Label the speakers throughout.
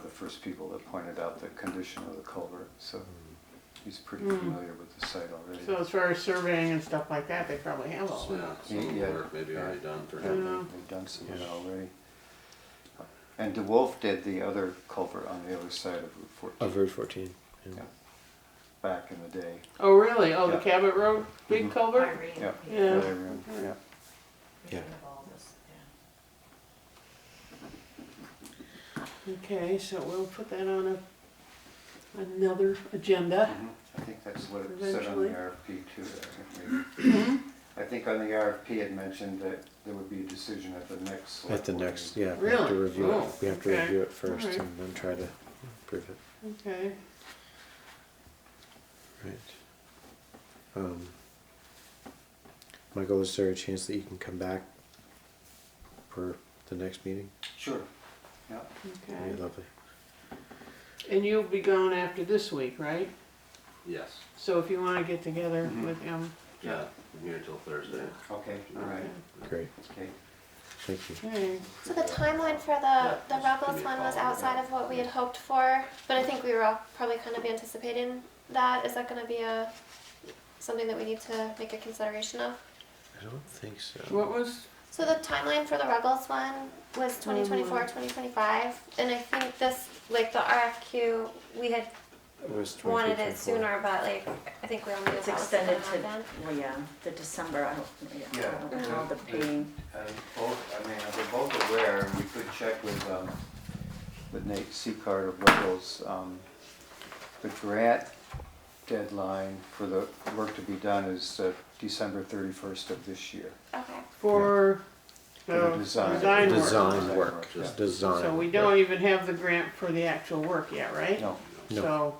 Speaker 1: first people that pointed out the condition of the culvert, so he's pretty
Speaker 2: Mm.
Speaker 1: familiar with the site already.
Speaker 2: So as far as surveying and stuff like that, they probably have all
Speaker 3: Yeah,
Speaker 2: that.
Speaker 3: some
Speaker 1: Yeah.
Speaker 3: work maybe already done for
Speaker 1: Yeah,
Speaker 3: him.
Speaker 2: Yeah.
Speaker 1: they- They've done some of it already. And DeWolf did the other culvert on the other side of Route fourteen
Speaker 4: Of Route 14. Yeah.
Speaker 1: Yeah. back in the day.
Speaker 2: Oh, really? Oh, the
Speaker 1: Yeah.
Speaker 2: Cabot Road, big
Speaker 1: Mhm.
Speaker 2: culvert?
Speaker 5: Irene.
Speaker 1: Yeah.
Speaker 2: Yeah.
Speaker 1: Right, everyone. Yeah.
Speaker 4: Yeah.
Speaker 5: Irene of all this, yeah.
Speaker 2: Okay, so we'll put that on a, another agenda.
Speaker 1: Mhm. I think that's what it said on
Speaker 2: Eventually. Mm-hmm.
Speaker 1: the RFP too. I think maybe. I think on the RFP it mentioned that there would be a decision at the next.
Speaker 4: At
Speaker 1: select
Speaker 4: the
Speaker 1: board
Speaker 4: next,
Speaker 1: meeting.
Speaker 4: yeah, we have to
Speaker 2: Really?
Speaker 4: review
Speaker 2: Oh,
Speaker 4: it. We have to
Speaker 2: okay.
Speaker 4: review it first
Speaker 2: Alright.
Speaker 4: and then try to improve it.
Speaker 2: Okay.
Speaker 4: Right. Um, Michael, is there a chance that you can come back for the next meeting?
Speaker 1: Sure, yeah.
Speaker 4: That'd be
Speaker 2: Okay.
Speaker 4: lovely.
Speaker 2: And you'll be gone after this week, right?
Speaker 3: Yes,
Speaker 2: So if you want to get together
Speaker 1: Mhm.
Speaker 2: with him.
Speaker 3: yeah, I'm here until Thursday.
Speaker 1: Okay, all right,
Speaker 4: Great.
Speaker 1: okay.
Speaker 4: Thank you.
Speaker 2: Okay.
Speaker 6: So the timeline for
Speaker 3: Yeah,
Speaker 6: the, the
Speaker 3: just give
Speaker 6: Rebels
Speaker 3: me a
Speaker 6: one was
Speaker 3: call.
Speaker 6: outside of what we had hoped for, but I think we were all probably kind of anticipating that. Is that gonna be a, something that we need to make a consideration of?
Speaker 4: I don't think so.
Speaker 2: What was?
Speaker 6: So the timeline for the Rebels one
Speaker 5: Mm-hmm.
Speaker 6: was 2024,
Speaker 2: Mhm.
Speaker 6: 2025, and I think this, like the RFQ, we had
Speaker 4: It was 23,
Speaker 6: wanted
Speaker 4: 24.
Speaker 6: it sooner, but like, I think we all knew that was
Speaker 5: It's
Speaker 6: gonna
Speaker 5: extended to,
Speaker 6: happen.
Speaker 5: well, yeah, the December, I don't, yeah, I
Speaker 1: Yeah.
Speaker 5: don't know the being.
Speaker 1: And both, I mean, we're both aware, and we could check with, um, with Nate Seacard of Wiggles, um, the grant deadline for the work to be done is uh, December thirty-first of this year.
Speaker 6: Okay,
Speaker 2: For
Speaker 1: For
Speaker 2: the
Speaker 1: the
Speaker 2: design work.
Speaker 4: Design
Speaker 1: Design
Speaker 4: work,
Speaker 1: work,
Speaker 4: just
Speaker 1: yeah.
Speaker 4: design.
Speaker 2: So we
Speaker 4: work.
Speaker 2: don't even have the grant for the actual work yet, right?
Speaker 1: No,
Speaker 4: No.
Speaker 2: So,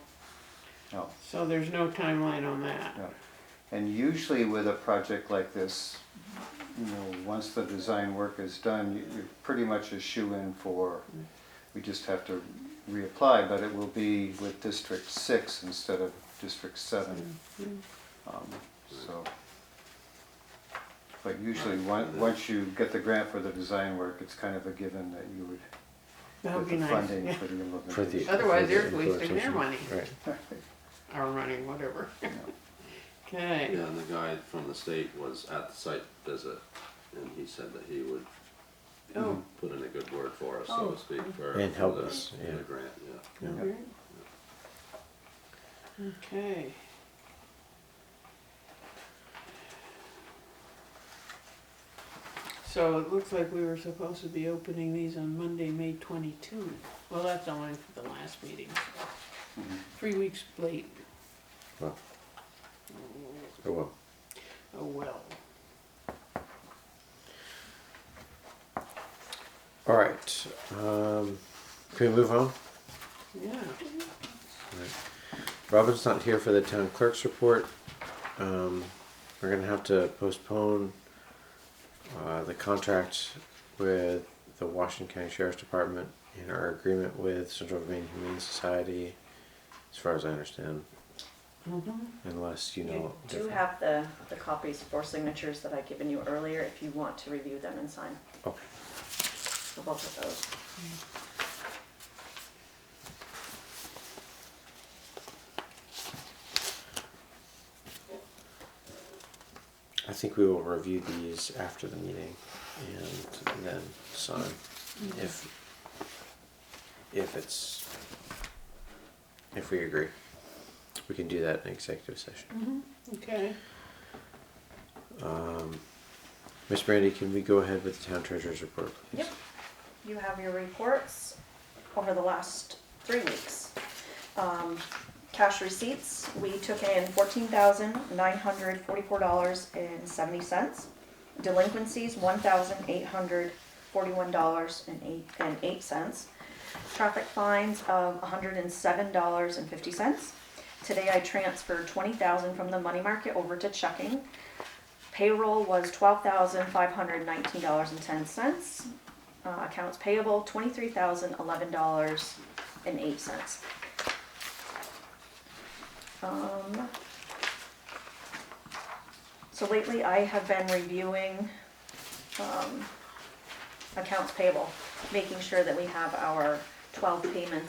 Speaker 1: no,
Speaker 2: so there's no timeline on that.
Speaker 1: no. And usually with a project like this, you know, once the design work is done, you- you're pretty much a shoe-in for, we just have to reapply, but it will be with District Six instead of District Seven. Um, So, but usually, on- once you get the grant for the design work, it's kind of a given that you would
Speaker 2: That would
Speaker 1: get
Speaker 2: be
Speaker 1: the
Speaker 2: nice.
Speaker 1: funding
Speaker 2: yeah.
Speaker 1: for the implementation.
Speaker 4: For the,
Speaker 2: Otherwise,
Speaker 4: for the
Speaker 2: they're wasting their
Speaker 4: implementation.
Speaker 2: money.
Speaker 4: Right.
Speaker 2: Or running, whatever. Okay.
Speaker 3: Yeah, and the guy from the state was at the site visit, and he said that he would
Speaker 2: Oh,
Speaker 3: put in a good word for us, so to speak, for.
Speaker 4: And help
Speaker 3: for the-
Speaker 4: us,
Speaker 3: for the
Speaker 4: yeah.
Speaker 3: grant, yeah.
Speaker 1: Yeah.
Speaker 2: okay. So it looks like we were supposed to be opening these on Monday, May twenty-two. Well, that's only for the last meeting. Three weeks late.
Speaker 4: Well, oh well.
Speaker 2: Oh, well.
Speaker 4: All right. Um, can we move on?
Speaker 2: Yeah.
Speaker 4: Robin's not here for the town clerk's report. Um, we're gonna have to postpone uh, the contract with the Washington County Sheriff's Department and our agreement with Central Maine Humane Society, as far as I understand, unless you
Speaker 5: You
Speaker 4: know.
Speaker 5: do
Speaker 4: different.
Speaker 5: have the, the copies for signatures that I given you earlier, if you want to review them and sign
Speaker 4: Okay.
Speaker 5: the bulk of those.
Speaker 4: I think we will review these after the meeting and then sign if if it's if we agree. We can do that in executive session.
Speaker 2: Okay.
Speaker 4: Um, Ms. Brandy, can we go ahead with the town treasurer's report, please?
Speaker 5: Yep. You have your reports over the last three weeks. Um, Cash receipts, we took in fourteen thousand nine hundred forty-four dollars and seventy cents. Delinquencies, one thousand eight hundred forty-one dollars and eight, and eight cents. Traffic fines of hundred and seven dollars and fifty cents. Today I transferred twenty thousand from the money market over to checking. Payroll was twelve thousand five hundred nineteen dollars and ten cents. Uh, accounts payable, twenty-three thousand eleven dollars and eight cents. Um, so lately I have been reviewing, um, accounts payable, making sure that we have our twelve payments